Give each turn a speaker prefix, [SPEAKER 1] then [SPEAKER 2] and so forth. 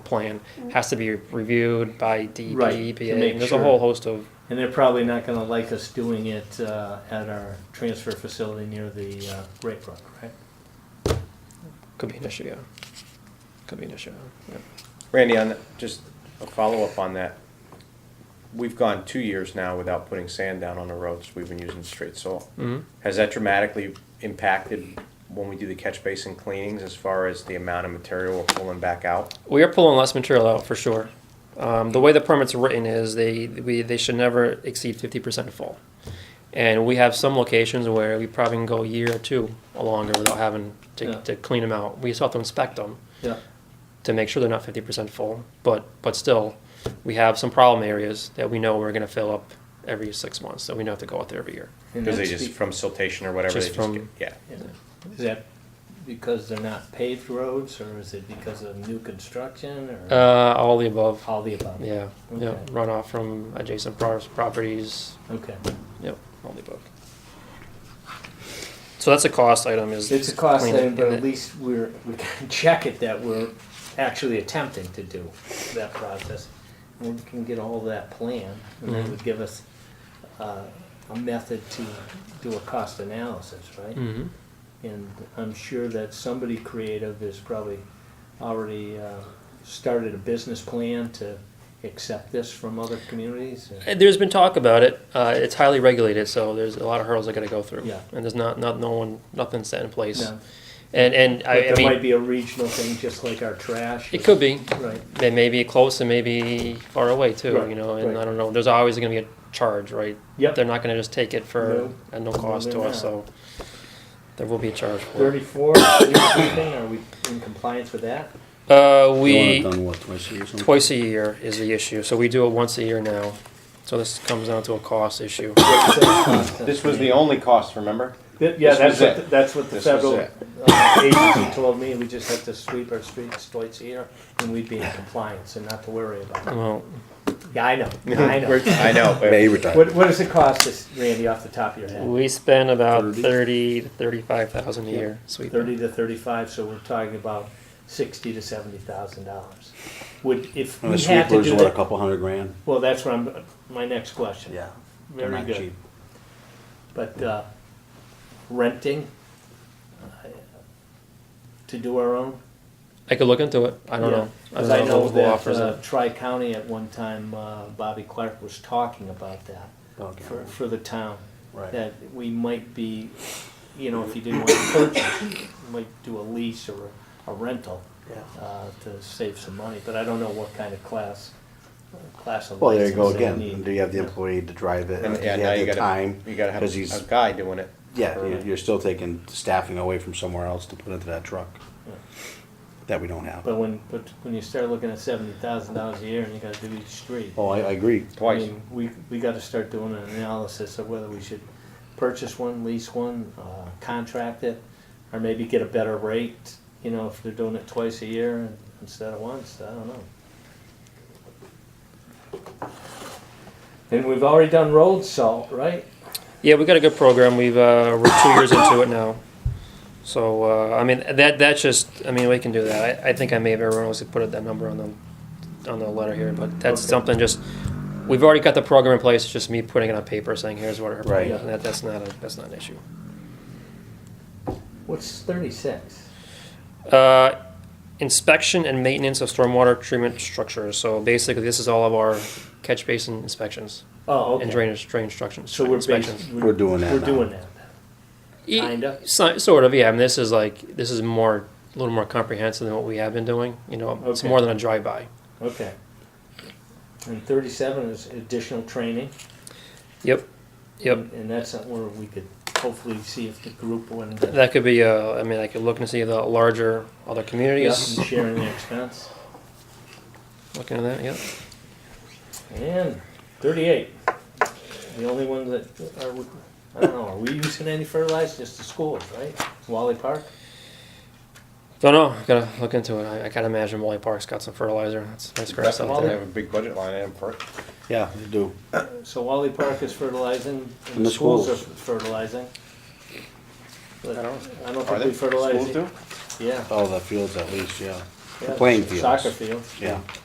[SPEAKER 1] plan has to be reviewed by DEP,
[SPEAKER 2] Right, to
[SPEAKER 1] EPA,
[SPEAKER 2] make
[SPEAKER 1] and there's a
[SPEAKER 2] sure.
[SPEAKER 1] whole host of,
[SPEAKER 2] And they're probably not gonna like us doing it, uh, at our transfer facility near the, uh, Great Brook, right?
[SPEAKER 1] could be an issue, yeah. Could be an issue, yeah.
[SPEAKER 3] Randy, on, just a follow-up on that. We've gone two years now without putting sand down on the roads. We've been using straight soil.
[SPEAKER 1] Mhm.
[SPEAKER 3] Has that dramatically impacted when we do the catch basin cleanings as far as the amount of material we're pulling back out?
[SPEAKER 1] We are pulling less material out for sure. Um, the way the permit's written is they we, they should never exceed fifty percent full, and we have some locations where we probably can go a year or two or longer without having to,
[SPEAKER 2] Yeah.
[SPEAKER 1] to clean them out. We still have to inspect them
[SPEAKER 2] Yeah.
[SPEAKER 1] to make sure they're not fifty percent full, but but still, we have some problem areas that we know we're going to fill up every six months, so we know have to go out there every year.
[SPEAKER 2] And
[SPEAKER 3] Because they
[SPEAKER 2] that's
[SPEAKER 3] just,
[SPEAKER 2] be-
[SPEAKER 3] from siltation or whatever, they
[SPEAKER 1] Just
[SPEAKER 3] just
[SPEAKER 1] from-
[SPEAKER 3] get, yeah.
[SPEAKER 2] yeah. Is that because they're not paved roads, or is it because of new construction, or
[SPEAKER 1] Uh, all the above,
[SPEAKER 2] all the above?
[SPEAKER 1] yeah, yeah,
[SPEAKER 2] Okay.
[SPEAKER 1] runoff from adjacent pro- properties,
[SPEAKER 2] Okay.
[SPEAKER 1] Yep, only book. So that's a cost item. Is
[SPEAKER 2] It's a cost
[SPEAKER 1] cleaning,
[SPEAKER 2] thing, but
[SPEAKER 1] and
[SPEAKER 2] at
[SPEAKER 1] it-
[SPEAKER 2] least we're, we can check it that we're actually attempting to do that process. And we can get a hold of that plan, and
[SPEAKER 1] Mm-hmm.
[SPEAKER 2] that would give us, uh, a method to do a cost analysis, right?
[SPEAKER 1] Mhm.
[SPEAKER 2] And I'm sure that somebody creative has probably already uh, started a business plan to accept this from other communities.
[SPEAKER 1] And There's been talk about it. Uh, it's highly regulated, so there's a lot of hurdles I got to go through.
[SPEAKER 2] Yeah.
[SPEAKER 1] And there's not, not no one nothing set in place.
[SPEAKER 2] No.
[SPEAKER 1] And and
[SPEAKER 2] But
[SPEAKER 1] I, I
[SPEAKER 2] there might
[SPEAKER 1] mean,
[SPEAKER 2] be a regional thing, just like our trash.
[SPEAKER 1] it could be.
[SPEAKER 2] Right,
[SPEAKER 1] They may be close and may be far away too.
[SPEAKER 2] Right,
[SPEAKER 1] You know, and
[SPEAKER 2] right.
[SPEAKER 1] I don't know. There's always going to be a charge, right?
[SPEAKER 2] yep.
[SPEAKER 1] They're not going to just take it for
[SPEAKER 2] No.
[SPEAKER 1] at no cost
[SPEAKER 2] they're
[SPEAKER 1] to us. So
[SPEAKER 2] not.
[SPEAKER 1] there will be a charge for it.
[SPEAKER 2] Thirty-four, landscaping, are we in compliance with that?
[SPEAKER 1] Uh,
[SPEAKER 4] You want it
[SPEAKER 1] we
[SPEAKER 4] done, what, twice a year or something?
[SPEAKER 1] Twice a year is the issue, so we do it once a year now. So this comes down to a cost issue.
[SPEAKER 3] This was the only cost, remember?
[SPEAKER 2] Th- Yeah,
[SPEAKER 3] this
[SPEAKER 2] that's
[SPEAKER 3] was
[SPEAKER 2] what,
[SPEAKER 3] it.
[SPEAKER 2] the- that's what the
[SPEAKER 3] This was
[SPEAKER 2] federal
[SPEAKER 3] it.
[SPEAKER 2] uh, agency told me, we just have to sweep our streets twice a year, and we'd be in compliance and not to worry about it.
[SPEAKER 1] Well,
[SPEAKER 2] Yeah, I know, I know.
[SPEAKER 3] I know.
[SPEAKER 4] May retire.
[SPEAKER 2] What, what does it cost us, Randy, off the top of your head?
[SPEAKER 1] we spend about
[SPEAKER 4] Thirty?
[SPEAKER 1] thirty to thirty-five thousand a
[SPEAKER 2] Yep.
[SPEAKER 1] year sweeping.
[SPEAKER 2] Thirty to thirty-five, so we're talking about sixty to seventy thousand dollars. Would, if
[SPEAKER 4] And the
[SPEAKER 2] we had to
[SPEAKER 4] sweepers,
[SPEAKER 2] do
[SPEAKER 4] what, a
[SPEAKER 2] that,
[SPEAKER 4] couple hundred grand?
[SPEAKER 2] well, that's where I'm, my next question.
[SPEAKER 4] They're
[SPEAKER 2] Very
[SPEAKER 4] not
[SPEAKER 2] good.
[SPEAKER 4] cheap.
[SPEAKER 2] But, uh, renting, uh, to do our own?
[SPEAKER 1] I could look into it, I don't know. I
[SPEAKER 2] Cause
[SPEAKER 1] don't know
[SPEAKER 2] I
[SPEAKER 1] if
[SPEAKER 2] know
[SPEAKER 1] local
[SPEAKER 2] that,
[SPEAKER 1] offers
[SPEAKER 2] uh,
[SPEAKER 1] it.
[SPEAKER 2] Tri-County at one time, uh, Bobby Clark was talking about that
[SPEAKER 4] Okay.
[SPEAKER 2] for, for the town.
[SPEAKER 4] Right.
[SPEAKER 2] that we might be, you know, if you didn't want to purchase, you might do a lease or a rental uh, to save some money, but I don't know what kind of class, uh, class of
[SPEAKER 5] Well, there you go
[SPEAKER 2] license they
[SPEAKER 5] again.
[SPEAKER 2] need.
[SPEAKER 5] Do you have the employee to drive it?
[SPEAKER 3] And,
[SPEAKER 5] Do
[SPEAKER 3] yeah,
[SPEAKER 5] you
[SPEAKER 3] now
[SPEAKER 5] have
[SPEAKER 3] you
[SPEAKER 5] the
[SPEAKER 3] gotta,
[SPEAKER 5] time?
[SPEAKER 3] you gotta have
[SPEAKER 5] 'Cause
[SPEAKER 3] a
[SPEAKER 5] he's-
[SPEAKER 3] guy doing it.
[SPEAKER 5] Yeah, you- you're still taking staffing away from somewhere else to put into that truck
[SPEAKER 2] Yeah.
[SPEAKER 5] that we don't have.
[SPEAKER 2] But when, but when you start looking at seventy thousand dollars a year and you gotta do each street.
[SPEAKER 5] Oh, I, I agree.
[SPEAKER 2] I
[SPEAKER 3] Twice.
[SPEAKER 2] mean, we, we gotta start doing an analysis of whether we should purchase one, lease one, uh, contract it, or maybe get a better rate, you know, if they're doing it twice a year instead of once, I don't know. And we've already done road salt, right?
[SPEAKER 1] Yeah, we got a good program, we've, uh, we're two years into it now. So, uh, I mean, that, that's just, I mean, we can do that. I, I think I may have erroneously put that number on the, on the letter here, but that's
[SPEAKER 2] Okay.
[SPEAKER 1] something just, we've already got the program in place, it's just me putting it on paper, saying here's what our
[SPEAKER 5] Right.
[SPEAKER 1] plan, is, and that, that's not a, that's not an issue.
[SPEAKER 2] What's thirty-six?
[SPEAKER 1] Uh, inspection and maintenance of stormwater treatment structures. So basically, this is all of our catch basin inspections
[SPEAKER 2] Oh,
[SPEAKER 1] and
[SPEAKER 2] okay.
[SPEAKER 1] drainage drain instructions.
[SPEAKER 2] So we're
[SPEAKER 1] inspections.
[SPEAKER 2] basically.
[SPEAKER 5] We're doing that
[SPEAKER 2] We're
[SPEAKER 5] now.
[SPEAKER 2] doing that.
[SPEAKER 1] E-
[SPEAKER 2] kinda.
[SPEAKER 1] so- sort of, yeah. And this is like this is more a little more comprehensive than what we have been doing. You know, it's
[SPEAKER 2] Okay.
[SPEAKER 1] more than a drive by.
[SPEAKER 2] Okay. And thirty-seven is additional training.
[SPEAKER 1] Yep, yep.
[SPEAKER 2] And that's not where we could hopefully see if the group would.
[SPEAKER 1] That could be. Uh, I mean, I could look and see the larger other communities.
[SPEAKER 2] And sharing the expense.
[SPEAKER 1] Looking at that, yeah.
[SPEAKER 2] And thirty-eight, the only one that, are, we- I don't know, are we using any fertilizer? Just the schools, right? Wally Park?
[SPEAKER 1] Don't know. Gotta look into it. I, I can't imagine Wally Park's got some fertilizer. That's nice grass
[SPEAKER 3] They
[SPEAKER 1] out
[SPEAKER 3] have
[SPEAKER 1] there.
[SPEAKER 3] a big budget line item for it.
[SPEAKER 5] Yeah, you do.
[SPEAKER 2] So Wally Park is fertilizing and
[SPEAKER 5] And
[SPEAKER 2] the
[SPEAKER 5] the
[SPEAKER 2] schools are
[SPEAKER 5] schools.
[SPEAKER 2] fertilizing. But
[SPEAKER 3] I
[SPEAKER 2] I
[SPEAKER 3] don't-
[SPEAKER 2] don't
[SPEAKER 3] Are
[SPEAKER 2] think
[SPEAKER 3] they?
[SPEAKER 2] we fertilize.
[SPEAKER 3] Schools do?
[SPEAKER 2] Yeah,
[SPEAKER 5] All the fields Oh, at least, yeah.
[SPEAKER 2] Yeah,
[SPEAKER 5] playing
[SPEAKER 2] Soccer
[SPEAKER 5] fields.
[SPEAKER 2] field.
[SPEAKER 5] Yeah.